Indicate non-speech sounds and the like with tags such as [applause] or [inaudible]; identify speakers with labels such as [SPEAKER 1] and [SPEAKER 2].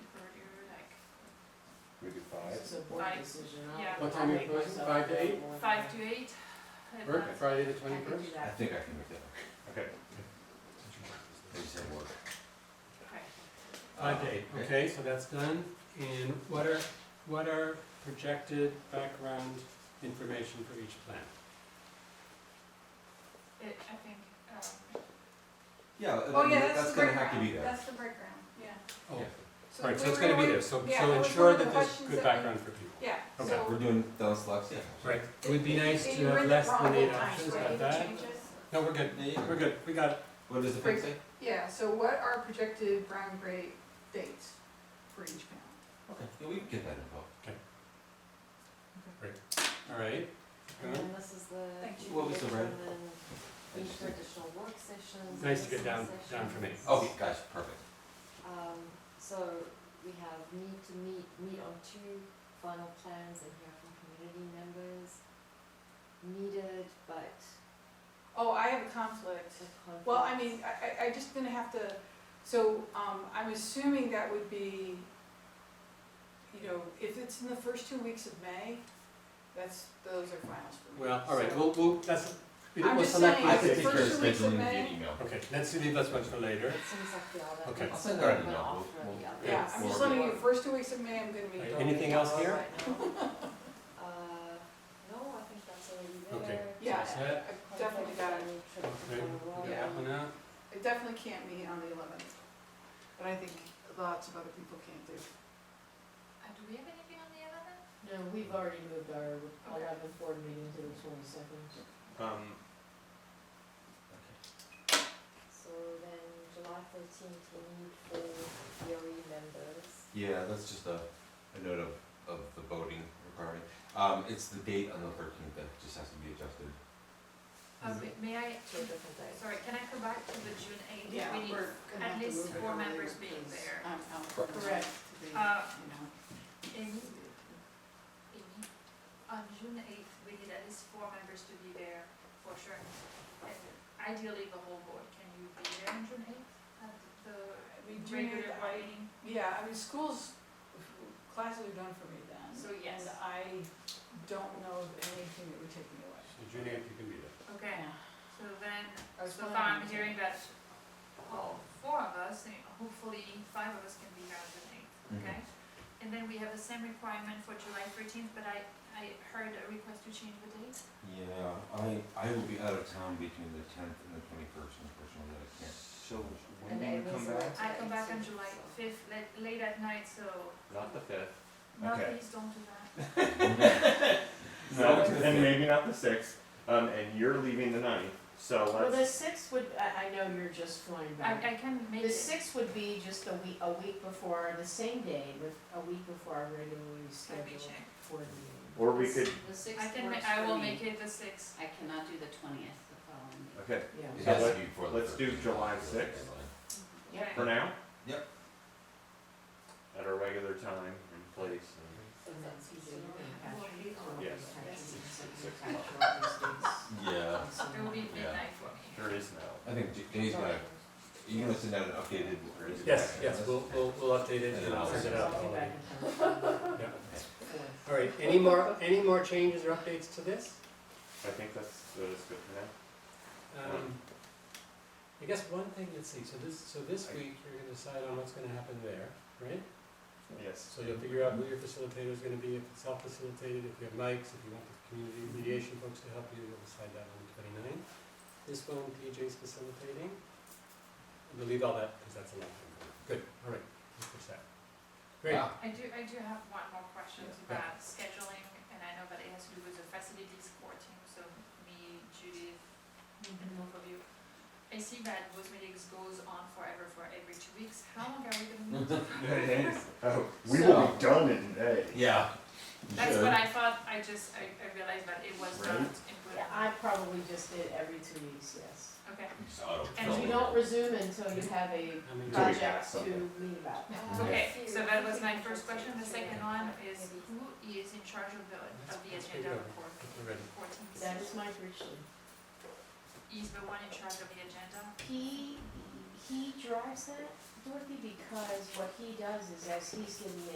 [SPEAKER 1] it's a board
[SPEAKER 2] Five.
[SPEAKER 1] decision, I'll.
[SPEAKER 2] Yeah.
[SPEAKER 3] What
[SPEAKER 1] I'll
[SPEAKER 3] time you
[SPEAKER 1] make
[SPEAKER 3] closing?
[SPEAKER 1] myself
[SPEAKER 3] Five to eight?
[SPEAKER 1] available.
[SPEAKER 2] Five to eight. and
[SPEAKER 3] Work,
[SPEAKER 2] that's-
[SPEAKER 3] Friday the
[SPEAKER 1] I can do
[SPEAKER 3] twenty-first?
[SPEAKER 4] I
[SPEAKER 1] that.
[SPEAKER 4] think I can make that work.
[SPEAKER 3] Okay.
[SPEAKER 4] I just have work.
[SPEAKER 2] okay.
[SPEAKER 3] Five to eight,
[SPEAKER 4] Okay.
[SPEAKER 3] okay, so that's done, and what are, what are projected background information for each plan?
[SPEAKER 2] It, I think, um,
[SPEAKER 4] Yeah,
[SPEAKER 5] Oh,
[SPEAKER 4] I mean,
[SPEAKER 5] yeah,
[SPEAKER 4] that-
[SPEAKER 5] that's
[SPEAKER 4] that's
[SPEAKER 5] the
[SPEAKER 4] gonna have to be
[SPEAKER 5] breakground,
[SPEAKER 4] there.
[SPEAKER 5] that's the breakground, yeah.
[SPEAKER 3] Oh,
[SPEAKER 4] Yeah.
[SPEAKER 5] So
[SPEAKER 3] Right, so
[SPEAKER 5] we
[SPEAKER 3] it's
[SPEAKER 5] were
[SPEAKER 3] gonna be
[SPEAKER 5] doing-
[SPEAKER 3] there, so,
[SPEAKER 5] yeah,
[SPEAKER 3] so
[SPEAKER 5] that was
[SPEAKER 3] ensure
[SPEAKER 5] one of the
[SPEAKER 3] that there's
[SPEAKER 5] questions
[SPEAKER 3] good
[SPEAKER 5] that we-
[SPEAKER 3] background for people.
[SPEAKER 5] Yeah,
[SPEAKER 3] Okay.
[SPEAKER 4] We're
[SPEAKER 5] so.
[SPEAKER 4] doing down selects, yeah.
[SPEAKER 3] Right, it would be
[SPEAKER 5] if-
[SPEAKER 3] nice to
[SPEAKER 5] if you were
[SPEAKER 3] have
[SPEAKER 5] in
[SPEAKER 3] less
[SPEAKER 5] the
[SPEAKER 3] than eight
[SPEAKER 5] problem times,
[SPEAKER 3] options,
[SPEAKER 5] right,
[SPEAKER 3] got
[SPEAKER 5] the
[SPEAKER 3] that?
[SPEAKER 5] changes?
[SPEAKER 3] No, we're good,
[SPEAKER 4] Yeah, yeah.
[SPEAKER 3] we're good, we got it.
[SPEAKER 4] What does the fix say?
[SPEAKER 5] Yeah, so what are projected brown gray dates for each panel?
[SPEAKER 4] Okay, yeah, we can get that info.
[SPEAKER 3] all right.
[SPEAKER 6] And then this is the.
[SPEAKER 5] Thank
[SPEAKER 4] you. What was the red?
[SPEAKER 6] And then each for additional work sessions.
[SPEAKER 3] Nice to get down-
[SPEAKER 6] listening
[SPEAKER 3] down for me.
[SPEAKER 6] sessions.
[SPEAKER 4] Okay, guys, perfect.
[SPEAKER 6] Um, so we have need to meet, meet on two final plans and hear from community members. Needed, but
[SPEAKER 5] Oh, I have a conflict.
[SPEAKER 6] the conflict.
[SPEAKER 5] Well, I mean, I, I, I just gonna have to, so, um, I'm assuming that would be, you know, if it's in the first two weeks of May, that's, those are finals for me.
[SPEAKER 3] Well, all right,
[SPEAKER 5] So-
[SPEAKER 3] we'll, we'll, that's, we-
[SPEAKER 5] I'm
[SPEAKER 3] we'll
[SPEAKER 5] just
[SPEAKER 3] select
[SPEAKER 5] saying,
[SPEAKER 3] one
[SPEAKER 4] I
[SPEAKER 5] it's
[SPEAKER 4] can
[SPEAKER 5] the
[SPEAKER 3] fifty
[SPEAKER 4] take care
[SPEAKER 3] first.
[SPEAKER 5] first
[SPEAKER 4] of
[SPEAKER 5] week of
[SPEAKER 4] scheduling via
[SPEAKER 5] May.
[SPEAKER 4] email.
[SPEAKER 3] Okay, let's leave this one for later.
[SPEAKER 6] It seems like the other.
[SPEAKER 3] Okay.
[SPEAKER 4] I'll send out an
[SPEAKER 6] one
[SPEAKER 4] email.
[SPEAKER 6] after
[SPEAKER 4] We'll-
[SPEAKER 6] the other.
[SPEAKER 5] Yeah, I'm just
[SPEAKER 4] Or-
[SPEAKER 5] letting you, first two weeks of May, I'm gonna be.
[SPEAKER 3] Right,
[SPEAKER 5] gone.
[SPEAKER 3] anything else here?
[SPEAKER 6] Right now. [laughs] Uh, no, I think that's already
[SPEAKER 3] Okay.
[SPEAKER 6] there.
[SPEAKER 5] Yeah,
[SPEAKER 3] Is
[SPEAKER 5] I
[SPEAKER 3] that-
[SPEAKER 5] I've definitely got it.
[SPEAKER 3] Okay, we got
[SPEAKER 5] Yeah.
[SPEAKER 3] that one out.
[SPEAKER 5] I definitely can't meet on the eleventh, but I think lots of other people can't do.
[SPEAKER 2] uh, do we have anything on the eleventh?
[SPEAKER 1] No, we've already moved our
[SPEAKER 2] Okay.
[SPEAKER 1] eleventh board meeting to the twenty-second.
[SPEAKER 3] Um,
[SPEAKER 6] So then July thirteenth, we need for DOE E members.
[SPEAKER 4] Yeah, that's just a, a note of, of the voting requirement. Um, it's the date on the thirteenth that just has to be adjusted.
[SPEAKER 2] Um, may I,
[SPEAKER 6] Two different days.
[SPEAKER 2] sorry, can I come back to the June eighth?
[SPEAKER 5] Yeah,
[SPEAKER 2] We need
[SPEAKER 5] we're gonna have
[SPEAKER 2] at
[SPEAKER 5] to
[SPEAKER 2] least
[SPEAKER 5] move it
[SPEAKER 2] four
[SPEAKER 5] earlier
[SPEAKER 2] members being
[SPEAKER 5] because
[SPEAKER 2] there.
[SPEAKER 5] I'm out for
[SPEAKER 4] Correct.
[SPEAKER 5] the rest of the, you
[SPEAKER 2] Uh,
[SPEAKER 5] know.
[SPEAKER 2] Amy, Amy, on June eighth, we need at least four members to be there for sure. And ideally, the whole board, can you be there on June eighth? At the
[SPEAKER 5] I mean, June eighth,
[SPEAKER 2] regular
[SPEAKER 5] I-
[SPEAKER 2] board meeting?
[SPEAKER 5] Yeah, I mean, schools, classes are done for me then.
[SPEAKER 2] So yes.
[SPEAKER 5] And I don't know of anything that would take me away.
[SPEAKER 3] so June eighth, you can be there.
[SPEAKER 2] Okay, so then,
[SPEAKER 5] I was
[SPEAKER 2] so
[SPEAKER 5] planning
[SPEAKER 2] far I'm
[SPEAKER 5] on it.
[SPEAKER 2] hearing that all four of us, and hopefully five of us can be here on June eighth, okay? And then we have the same requirement for July thirteenth, but I, I heard a request to change the date.
[SPEAKER 4] Yeah, I, I will be out of town between the tenth and the twenty-first, unfortunately, I can't. So,
[SPEAKER 6] when do you And come Amy's back?
[SPEAKER 2] I come back on
[SPEAKER 6] Okay, so-
[SPEAKER 2] July
[SPEAKER 6] so-
[SPEAKER 2] fifth, late, late at night, so
[SPEAKER 4] Not the fifth.
[SPEAKER 2] no,
[SPEAKER 7] Okay.
[SPEAKER 2] please don't do that.
[SPEAKER 7] No, then maybe not the sixth, um, and you're leaving the ninth, so
[SPEAKER 1] Well, the
[SPEAKER 7] let's,
[SPEAKER 1] sixth would, I, I know you're just flying
[SPEAKER 2] I,
[SPEAKER 1] back.
[SPEAKER 2] I can make
[SPEAKER 1] The
[SPEAKER 2] it,
[SPEAKER 1] sixth would be just a week, a week before, the same day, with, a week before our
[SPEAKER 2] let
[SPEAKER 1] regularly
[SPEAKER 2] me
[SPEAKER 1] scheduled
[SPEAKER 2] check.
[SPEAKER 1] board meeting.
[SPEAKER 7] or we could,
[SPEAKER 8] The
[SPEAKER 2] I
[SPEAKER 8] sixth
[SPEAKER 2] can, ma-
[SPEAKER 8] works
[SPEAKER 2] I will
[SPEAKER 8] for me.
[SPEAKER 2] make it the sixth.
[SPEAKER 8] I cannot do the twentieth the following week.
[SPEAKER 7] okay,
[SPEAKER 1] Yeah,
[SPEAKER 4] It
[SPEAKER 7] So
[SPEAKER 4] has to
[SPEAKER 7] let-
[SPEAKER 4] be before the
[SPEAKER 7] let's do
[SPEAKER 4] 13th.
[SPEAKER 7] July 6th.
[SPEAKER 1] Yeah.
[SPEAKER 7] for now?
[SPEAKER 4] Yep.
[SPEAKER 7] At our regular time and place, and
[SPEAKER 8] So that's easy.
[SPEAKER 7] Yes.
[SPEAKER 4] Yeah,
[SPEAKER 2] It will be
[SPEAKER 4] Yeah.
[SPEAKER 2] midnight for me.
[SPEAKER 7] there is no,
[SPEAKER 4] I think J- Jay's gonna, you're gonna send out an updated.
[SPEAKER 3] Yes, yes, we'll, we'll, we'll update it and
[SPEAKER 4] And I'll
[SPEAKER 3] send it
[SPEAKER 4] send
[SPEAKER 3] out.
[SPEAKER 4] it
[SPEAKER 1] I'll be back in
[SPEAKER 3] Yeah.
[SPEAKER 1] town.
[SPEAKER 2] [laughs]
[SPEAKER 3] All right, any more, any more changes or updates to this?
[SPEAKER 7] I think that's, that is good for now.
[SPEAKER 3] Um, I guess one thing, let's see, so this, so this week, you're gonna decide on what's gonna happen there, right?
[SPEAKER 7] Yes,
[SPEAKER 3] So you'll figure out who your facilitator's gonna be, if it's self-facilitated, if you have mics, if you want the community mediation folks to help you, you'll decide that on the twenty-ninth. This one, PJ's facilitating. We'll leave all that, because that's a long time. Good, all right, we'll push that. Great,
[SPEAKER 4] Wow.
[SPEAKER 2] I do, I do have one more question
[SPEAKER 3] Yeah.
[SPEAKER 2] about scheduling, and I know that it has to do with the facilities core team, so me, Judith, and both of you. I see that those meetings goes on forever for every two weeks, how long are we gonna meet? [laughs]
[SPEAKER 7] oh, we will
[SPEAKER 4] So-
[SPEAKER 7] be done in May.
[SPEAKER 4] Yeah.
[SPEAKER 2] That's what I thought, I just, I, I realized that it was not
[SPEAKER 7] Right.
[SPEAKER 2] included,
[SPEAKER 1] Yeah, I probably just did every two weeks, yes.
[SPEAKER 2] okay.
[SPEAKER 1] And you don't resume until you have a
[SPEAKER 3] how many?
[SPEAKER 7] Do we have
[SPEAKER 1] project to
[SPEAKER 7] something?
[SPEAKER 1] meet about.
[SPEAKER 4] Yeah.
[SPEAKER 2] Okay, so that was my first question, the second one is who is in charge of the, of the
[SPEAKER 3] Let's
[SPEAKER 2] agenda
[SPEAKER 3] figure
[SPEAKER 2] for,
[SPEAKER 3] We're ready.
[SPEAKER 2] for teams?
[SPEAKER 1] That is my prediction.
[SPEAKER 2] Is the one in charge of the agenda?
[SPEAKER 1] He, he drives that, Dorothy, because what he does is as he's giving